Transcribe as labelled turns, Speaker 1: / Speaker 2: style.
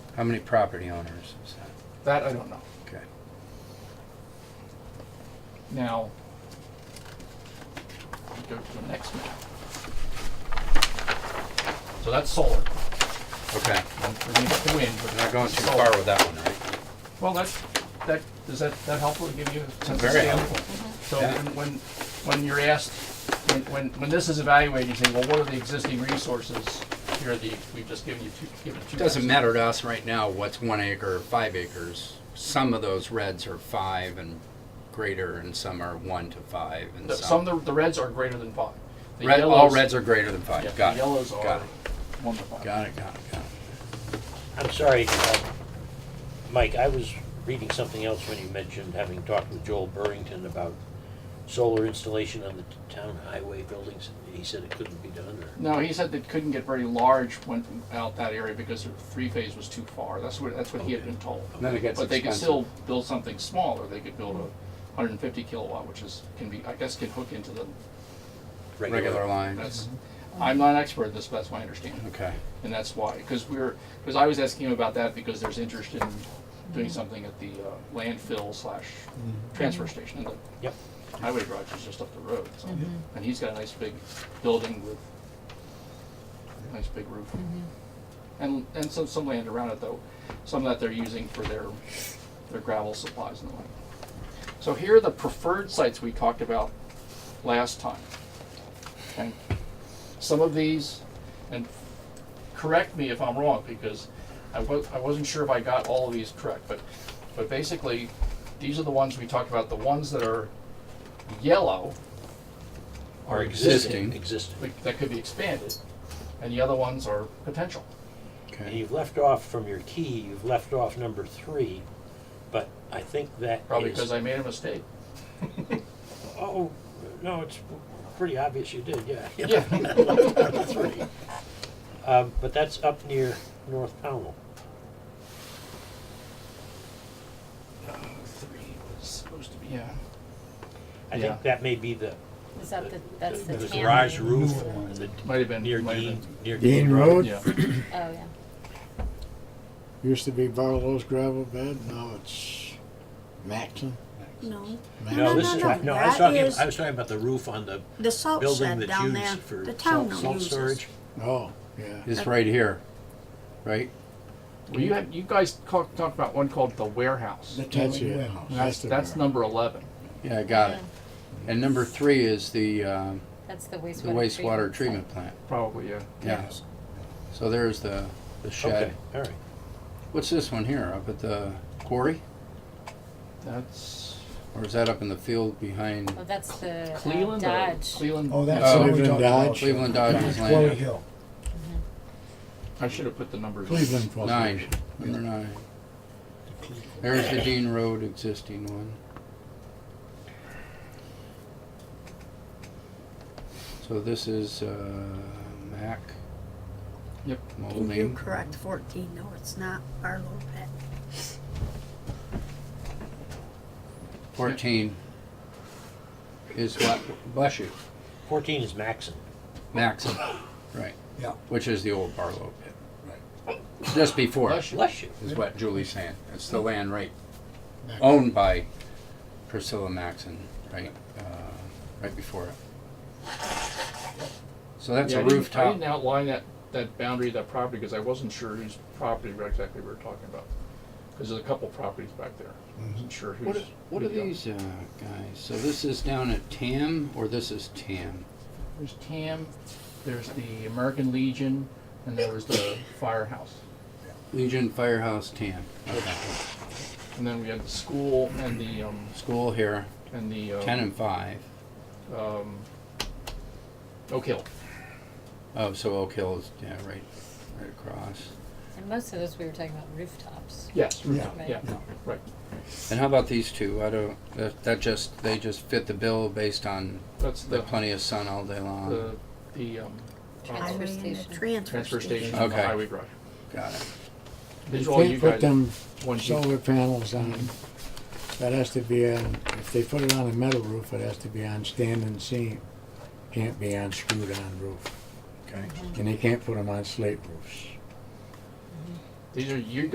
Speaker 1: How many property owners is that?
Speaker 2: That I don't know.
Speaker 1: Okay.
Speaker 2: Now, go to the next map. So that's solar.
Speaker 1: Okay.
Speaker 2: We're gonna get the wind. but
Speaker 1: We're not going too
Speaker 2: solar.
Speaker 1: far with that one, right?
Speaker 2: Well, that, that, is that, that helpful to give you a sense of
Speaker 1: Very
Speaker 2: scale?
Speaker 1: helpful.
Speaker 2: So
Speaker 1: Yeah.
Speaker 2: when, when, when you're asked, when, when, when this is evaluated, you say, well, what are the existing resources? Here are the, we've just given you two, given two.
Speaker 1: It doesn't
Speaker 2: maps.
Speaker 1: matter to us right now what's one acre or five acres. Some of those reds are five and greater, and some are one to five, and
Speaker 2: The- Some,
Speaker 1: some.
Speaker 2: of the the reds are greater than five. The
Speaker 1: Red, all
Speaker 2: yellows-
Speaker 1: reds are greater than
Speaker 2: yeah,
Speaker 1: five.
Speaker 2: the
Speaker 1: Got it.
Speaker 2: yellows are
Speaker 1: Got it,
Speaker 2: one to five.
Speaker 1: got it, got it, got it.
Speaker 3: I'm sorry, uh, Mike, I was reading something else when you mentioned having talked with Joel Burrington about solar installation on the t- town highway buildings. He said it couldn't be done, or,
Speaker 2: No, he said they couldn't get very large when out that area because their three phase was too far. That's what that's what he had been told.
Speaker 1: And Then it gets
Speaker 2: But they could
Speaker 1: expensive.
Speaker 2: still build something smaller. They could build a 150 kilowatt, which is can be I guess can hook into the.
Speaker 1: Regular lines,
Speaker 2: That's
Speaker 1: Mm-hmm.
Speaker 2: I'm not an expert at this, but that's my understanding,
Speaker 1: okay.
Speaker 2: and that's why because we're because I was asking him about that because there's interest in
Speaker 1: Mm-hmm.
Speaker 2: doing something at the uh, landfill slash transfer station and the
Speaker 3: Yep.
Speaker 2: highway garage is just up the road, so, and he's got a nice big building with a nice big roof. And, and some, some land around it though, some that they're using for their, their gravel supplies and the like. So here are the preferred sites we talked about last time. Okay, some of these, and correct me if I'm wrong, because I was, I wasn't sure if I got all of these correct, but, but basically, these are the ones we talked about, the ones that are yellow,
Speaker 3: Or
Speaker 1: existing.
Speaker 3: Existing.
Speaker 2: like, that could be expanded, and the other ones are potential.
Speaker 3: And
Speaker 1: Okay.
Speaker 3: you've left off from your key, you've left off number three, but I think that
Speaker 2: Probably
Speaker 3: is-
Speaker 2: because I made a mistake.
Speaker 3: Oh, no, it's pretty obvious you did, yeah.
Speaker 2: Yeah.
Speaker 3: Number three. Um, but that's up near North Pownell.
Speaker 2: Three was supposed to be. Yeah.
Speaker 3: I
Speaker 2: Yeah.
Speaker 3: think that may be the,
Speaker 4: Is that the, that's the
Speaker 3: the
Speaker 4: tan
Speaker 3: garage
Speaker 4: one?
Speaker 3: roof
Speaker 4: Oh,
Speaker 3: the-
Speaker 2: Might have been.
Speaker 3: near
Speaker 2: might have
Speaker 3: Dean,
Speaker 2: been-
Speaker 3: near
Speaker 5: Dean Road?
Speaker 2: Yeah.
Speaker 4: yeah.
Speaker 5: Used to be Barlow's gravel bed, now it's Maxon.
Speaker 6: No,
Speaker 3: No,
Speaker 6: No,
Speaker 3: this
Speaker 6: no,
Speaker 3: is,
Speaker 6: no,
Speaker 3: no, I was
Speaker 6: that
Speaker 3: talking,
Speaker 6: is-
Speaker 3: I was talking about the roof on the
Speaker 6: the salt
Speaker 3: building
Speaker 6: shed
Speaker 3: that's
Speaker 6: down there,
Speaker 3: used for
Speaker 6: the
Speaker 3: salt,
Speaker 6: town don't
Speaker 3: salt
Speaker 6: use it.
Speaker 3: storage.
Speaker 5: Oh, yeah.
Speaker 1: It's right here, right?
Speaker 2: Well, you had you guys talked talked about one called the warehouse.
Speaker 5: That's it.
Speaker 2: That's
Speaker 5: the
Speaker 2: that's
Speaker 5: one.
Speaker 2: number eleven.
Speaker 1: Yeah, I got it. And number three is the, um,
Speaker 4: That's the wastewater.
Speaker 1: the wastewater
Speaker 4: site.
Speaker 1: treatment plant,
Speaker 2: Probably yeah.
Speaker 1: yeah. So there's the, the
Speaker 3: Okay,
Speaker 1: shed.
Speaker 3: all right.
Speaker 1: What's this one here, up at the quarry?
Speaker 2: That's
Speaker 1: Or is that up in the field behind
Speaker 4: Oh, that's the uh,
Speaker 2: Cleveland. or-
Speaker 4: Dodge.
Speaker 2: Cleveland.
Speaker 7: Oh, that's
Speaker 1: Oh,
Speaker 7: what we
Speaker 5: Cleveland
Speaker 7: talked about.
Speaker 5: Dodge.
Speaker 1: Cleveland Dodgers
Speaker 7: Quarry
Speaker 1: land?
Speaker 7: Hill.
Speaker 2: I should have put the numbers.
Speaker 5: Cleveland Falls.
Speaker 1: Nine, number nine. There's the Dean Road existing one. So this is, uh, Mac.
Speaker 2: Yep.
Speaker 6: You're
Speaker 1: Molding.
Speaker 6: correct, fourteen, no, it's not Barlow Pet.
Speaker 1: Fourteen is what, bless you,
Speaker 3: Fourteen is Maxon.
Speaker 1: Maxim, right,
Speaker 7: Yeah.
Speaker 1: which is the old Barlow pit. Just before,
Speaker 2: Bless
Speaker 1: is
Speaker 2: you.
Speaker 3: Bless you.
Speaker 1: what Julie's saying. It's the land right,
Speaker 5: Maxon.
Speaker 1: owned by Priscilla Maxon, right, uh, right before it. So that's
Speaker 2: Yeah, I
Speaker 1: a
Speaker 2: didn't- I
Speaker 1: rooftop.
Speaker 2: didn't outline that, that boundary of that property because I wasn't sure whose property we exactly we were talking about. Because there's a couple properties back there. I wasn't sure who's.
Speaker 1: What are, what are these, uh, guys? So this is down at Tam, or this is Tam?
Speaker 2: There's TAM, there's the American Legion, and there was the firehouse.
Speaker 1: Legion Firehouse Tam. Okay.
Speaker 2: And then we had the school and the, um,
Speaker 1: School here,
Speaker 2: and the, uh.
Speaker 1: ten and five.
Speaker 2: Um, Oak Hill.
Speaker 1: Oh, so Oak Hill is, yeah, right, right across.
Speaker 4: And most of those, we were talking about rooftops.
Speaker 2: Yes.
Speaker 7: Yeah.
Speaker 4: right?
Speaker 2: Yeah, right.
Speaker 1: And how about these two? I don't, that, that just, they just fit the bill based on
Speaker 2: That's
Speaker 1: the
Speaker 2: the,
Speaker 1: plenty of sun all day long.
Speaker 2: the, the, um, uh,
Speaker 4: Transfer
Speaker 6: Highway and the
Speaker 4: station.
Speaker 6: transfer
Speaker 2: transfer station
Speaker 6: station.
Speaker 2: on the
Speaker 1: Okay.
Speaker 2: highway garage.
Speaker 1: Got it.
Speaker 2: These are
Speaker 5: You
Speaker 2: all you
Speaker 5: can't put
Speaker 2: guys,
Speaker 5: them
Speaker 2: ones you-
Speaker 5: solar panels on, that has to be on, if they put it on a metal roof, it has to be on standing seam. Can't be on screwed on roof,
Speaker 1: Okay.
Speaker 5: and they can't put them on slate roofs.
Speaker 2: these are you